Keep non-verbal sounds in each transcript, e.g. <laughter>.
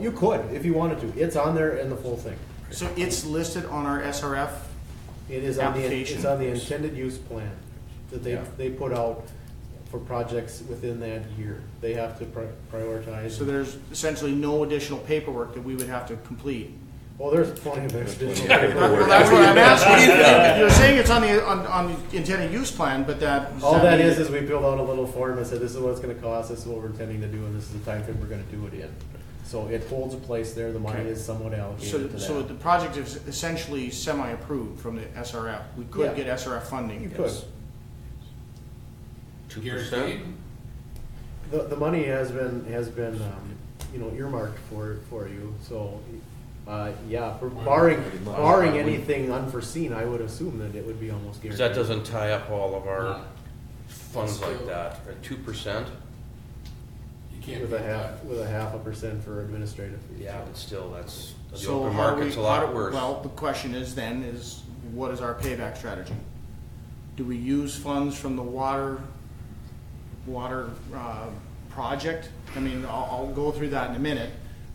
You could, if you wanted to. It's on there in the full thing. So it's listed on our SRF? It is on the, it's Application. on the intended use plan that they, Yeah. they put out for projects within that year. They have to pri- So prioritize. there's essentially no additional paperwork that we would have to complete? Well, there's plenty of additional. Well, that's what I'm asking. You're saying it's on the, on, on the intended use plan, but that. does All that mean- is, is we filled out a little form and said, this is what it's gonna cost, this is what we're intending to do, and this is the timeframe we're gonna do it in. So it holds a place there, the money Okay. is somewhat So, allocated to so that. the project is essentially semi-approved from the SRF? We Yeah. could get SRF funding? You could. Two Guaranteed. The, the money has been, has been, um, you know, earmarked for, for you, so, uh, yeah, for barring, barring anything unforeseen, I would assume that it would be almost Because guaranteed. that doesn't tie up all of our funds Still. like that, at two percent? You can't With beat a half, that. with a half a percent for administrative fees. Uh, Yeah, but still, that's, the So open how do we- market's a how lot do- worse. Well, the question is then, is what is our payback strategy? Do we use funds from the water, water, uh, project? I mean, I'll, I'll go through that in a minute,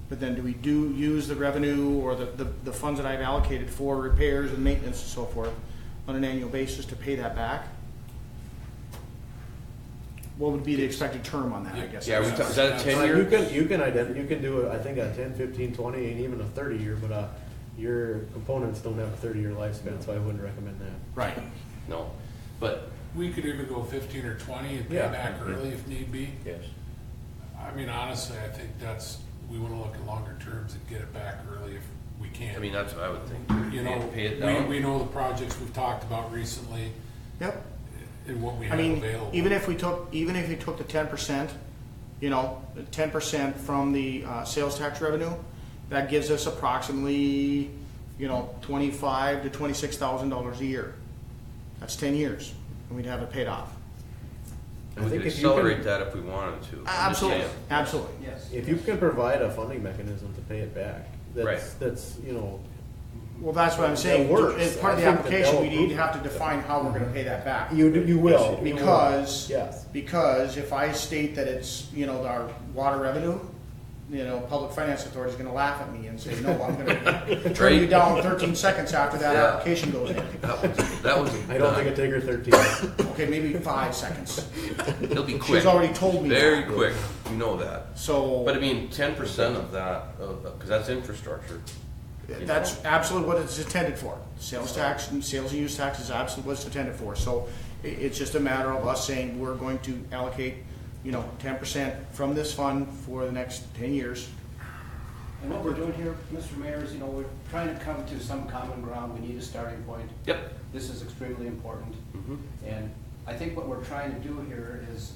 but then do we do, use the revenue or the, the, the funds that I've allocated for repairs and maintenance and so forth on an annual basis to pay that back? What would be the expected term on that, I guess? Yeah, we ta- is that a Uh, ten You year? can, you can ident, you can do, I think a ten, fifteen, twenty, and even a thirty year, but, uh, your components don't have a thirty year lifespan, so I wouldn't recommend that. Right, No, but, We could even go fifteen or twenty and pay Yeah. back early if need be. yes, I mean, honestly, I think that's, we wanna look at longer terms and get it back early if we can. I mean, that's what I would think. You know, Pay it down. we, we know the projects we've talked about recently yep. and what we I have mean, available. even if we took, even if you took the ten percent, you know, ten percent from the uh, sales tax revenue, that gives us approximately, you know, twenty-five to twenty-six thousand dollars a year. That's ten years, and we'd have it paid off. I And we think could if you can- accelerate that if we wanted to. I'm just Absolutely, saying. absolutely. Yes. If you can provide a funding mechanism to pay it back, that's, Right. that's, you know, Well, that's what I'm saying. That works. As part of the I think that application, we they'll need to have to define how we're gonna pay that back. you, do- you will. Oh, you will. Because. Yes. Because if I state that it's, you know, our water revenue, you know, public finance authority's gonna laugh at me and say, no, I'm <laughs> gonna turn you Right. down thirteen seconds after that Yeah. application goes in. That was, that was. I don't think it'd take her thirteen. Okay, maybe five seconds. It'll be quick. She's already told me Very that. quick, you know that. But I So, mean, ten percent of that, because that's infrastructure. you know. that's absolutely what it's intended for. Sales tax and sales and use tax is absolutely what it's intended for. So i it's just a matter of us saying, we're going to allocate, you know, ten percent from this fund for the next ten years. And what we're doing here, Mr. Mayor, is, you know, we're trying to come to some common ground, we need a starting point. Yep. Mm-hmm. This is extremely important. And I think what we're trying to do here is,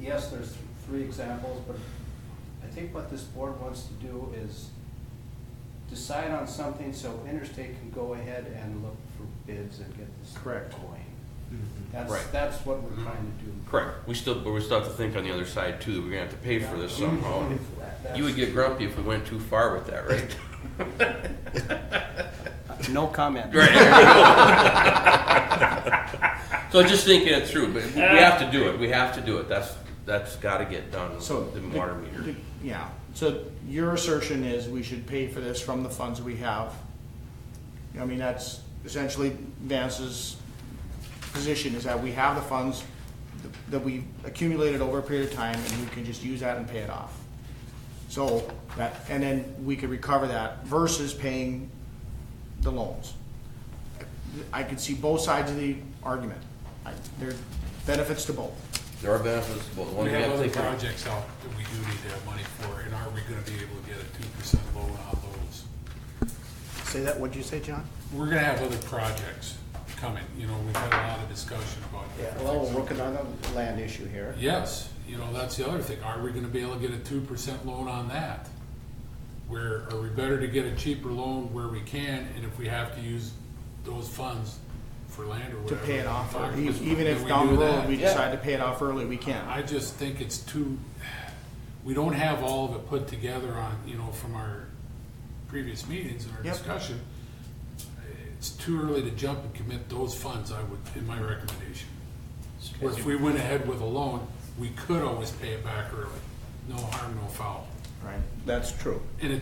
yes, there's th- three examples, but I think what this board wants to do is decide on something so Interstate can go ahead and look for bids and get this Correct. going. That's, Right. that's what we're trying to do. Correct. We still, but we still have to think on the other side too, that we're gonna have to pay for this somehow. <laughs> That- You would get grumpy if we went too far with that, right? <laughs> that's- No comment. <laughs> So just thinking it through, but we have to do it, we have to do it, that's, that's gotta get done, So. the the- water meter. the- Yeah, so your assertion is we should pay for this from the funds we have. I mean, that's essentially Vance's position is that we have the funds that we accumulated over a period of time and we can just use that and pay it off. So that, and then we could recover that versus paying the loans. I could see both sides of the argument. I- There are benefits to both. There are benefits, but one We thing I have other think, projects out that we do need to have money for, and are we gonna be able to get a two percent loan on those? Say that, what'd you say, John? We're gonna have other projects coming, you know, we've had a lot of discussion about. Yeah, well, we're working on the land issue here. Yes, you know, that's the other thing, are we gonna be able to get a two percent loan on that? Where, are we better to get a cheaper loan where we can, and if we have to use those funds for land or to whatever? pay it off, or talk e- to- even do if we down the do road that? we decide to pay it off early, we can. I just think it's too, we don't have all of it put together on, you know, from our previous meetings and our Yep. discussion. It's too early to jump and commit those funds, I would, in my recommendation. Where if we went ahead with a loan, we could always pay it back early, no harm, no foul. Right, that's true. And it